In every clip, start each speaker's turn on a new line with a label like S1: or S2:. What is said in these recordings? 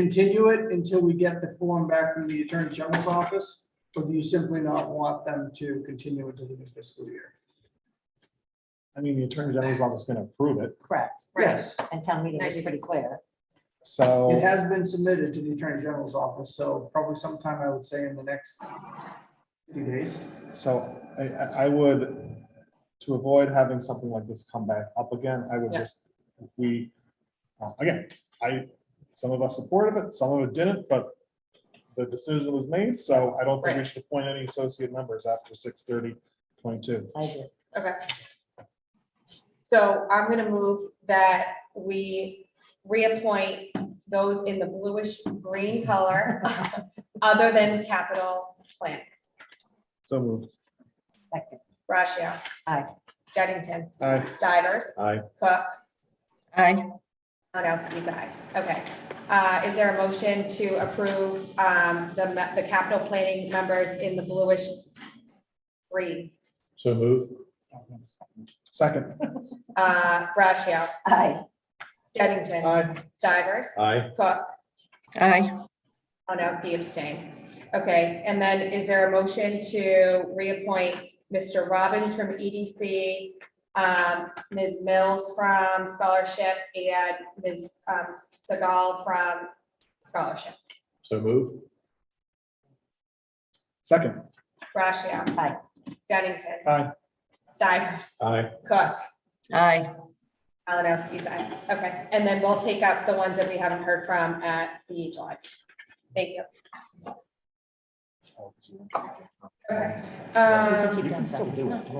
S1: continue it until we get the form back from the Attorney General's office? Or do you simply not want them to continue into the new fiscal year?
S2: I mean, the attorney general's office is gonna approve it,
S3: Correct.
S1: Yes,
S3: And town meeting is
S4: Ninety
S3: pretty
S4: days.
S3: clear.
S1: it
S2: so,
S1: has been submitted to the Attorney General's office, so probably sometime I would say in the next few days.
S2: so I, I, I would, to avoid having something like this come back up again, I would
S1: Yeah.
S2: just, we, uh, again, I, some of us supported it, some of it didn't, but the decision was made, so I don't think we should appoint any associate members after 6:30, 22.
S3: I agree.
S4: Okay. So I'm gonna move that we reappoint those in the bluish green color, other than capital plan.
S2: So moved.
S3: Second.
S4: Rashia.
S3: Aye.
S4: Dennington.
S2: Aye.
S4: Stivers.
S2: Aye.
S4: Cook.
S5: Aye.
S4: Nadowski's aye. Okay. Uh, Is there a motion to approve um, the ma- the capital planning members in the bluish green?
S2: So moved. Second.
S4: Uh, Rashia.
S3: Aye.
S4: Dennington.
S2: Aye.
S4: Stivers.
S2: Aye.
S4: Cook.
S5: Aye.
S4: Oh, no, the abstain. Okay, and then is there a motion to reappoint Mr. Robbins from EDC, um, Ms. Mills from Scholarship, and Ms. um, Segal from Scholarship?
S2: So moved. Second.
S4: Rashia.
S3: Aye.
S4: Dennington.
S2: Aye.
S4: Stivers.
S2: Aye.
S4: Cook.
S5: Aye.
S4: Malinowski's aye. Okay, and then we'll take up the ones that we haven't heard from at the July. Thank you. Okay.
S3: You
S4: Um,
S3: can keep doing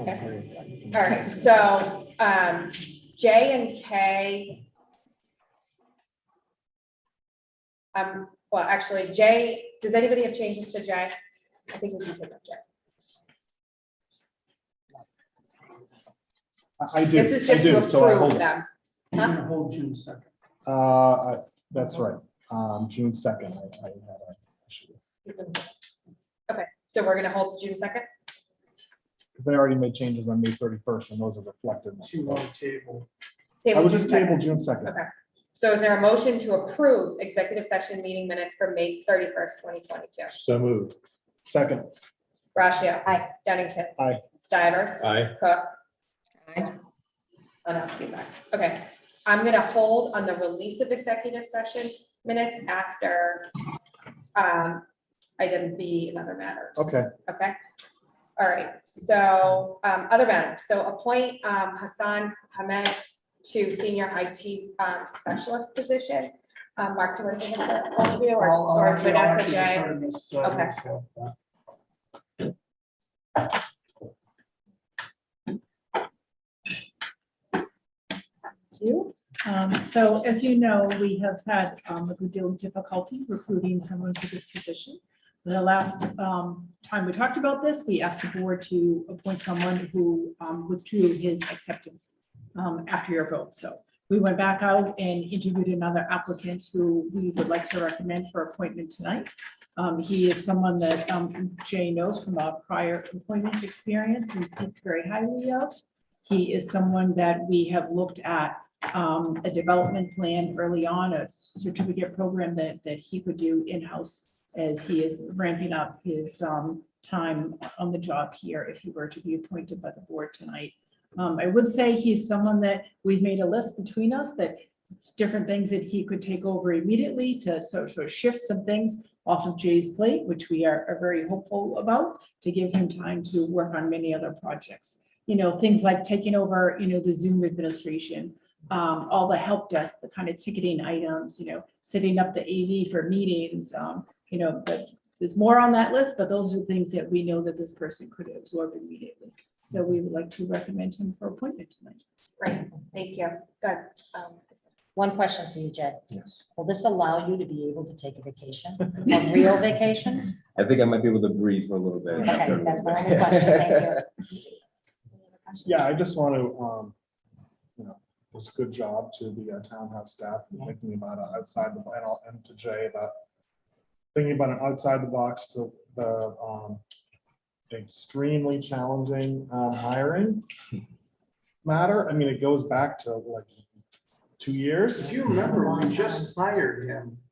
S3: second.
S4: All right, so, um, J and K. Um, well, actually, J, does anybody have changes to J? I think we can take up J.
S2: I- I do.
S4: This is
S2: I
S4: just to
S2: do, so I hold
S4: approve
S2: it.
S4: them.
S1: You're gonna hold June second.
S2: Uh, I- That's right, Um, June second. I I had a issue
S4: Okay, so we're gonna hold June second?
S2: Because I already made changes on May thirty-first, and those are reflected. in
S1: She
S2: the vote.
S1: won't table.
S2: I would just table June second.
S4: Okay, so is there a motion to approve executive session meeting minutes for May thirty-first, twenty twenty-two?
S2: So moved. Second.
S4: Rashia.
S3: Aye.
S4: Dennington.
S2: Aye.
S4: Stivers.
S2: Aye.
S4: Cook. Oh,
S5: Aye.
S4: Malinowski's aye. Okay, I'm gonna hold on the release of executive session minutes after um, item B and other matters.
S2: Okay,
S4: Okay, all right, so um, other matters, so appoint um, Hassan Hamed to senior IT um, specialist position. Um, Mark, do you want to take a all of you or
S1: I'll- I'll
S4: or
S1: actually- I'll actually
S4: Vanessa J?
S1: defer to Miss, uh,
S4: Okay.
S1: Miss, uh,
S6: you. Um, So as you know, we have had um, a good deal of difficulty recruiting someone for this position. The last um, time we talked about this, we asked the board to appoint someone who um, withdrew his acceptance um, after your vote. So we went back out and interviewed another applicant who we would like to recommend for appointment tonight. Um, He is someone that um, Jay knows from a prior employment experience and speaks very highly of. He is someone that we have looked at um, a development plan early on, a certificate program that, that he could do in-house as he is ramping up his, um, time on the job here if he were to be appointed by the board tonight. Um, I would say he's someone that we've made a list between us that it's different things that he could take over immediately to sort of shift some things off of Jay's plate, which we are, are very hopeful about, to give him time to work on many other projects. You know, things like taking over, you know, the Zoom administration, um, all the help desk, the kind of ticketing items, you know, setting up the AV for meetings, um, you know, but there's more on that list, but those are things that we know that this person could absorb immediately. So we would like to recommend him for appointment tonight.
S4: Right, thank you, good. Um,
S3: One question for you, Jay.
S2: yes.
S3: Will this allow you to be able to take a vacation, a real vacation?
S7: I think I might be able to breathe for a little bit. after a
S3: Okay,
S7: little
S3: that's my
S7: bit.
S3: only question. Thank you.
S2: Yeah, I just want to, um, you know, it's a good job to the uh, townhouse staff and thinking about it outside the, and I'll- and to Jay about thinking about it outside the box to the, um, extremely challenging, um, hiring matter. I mean, it goes back to like two years.
S1: If you remember, we just hired him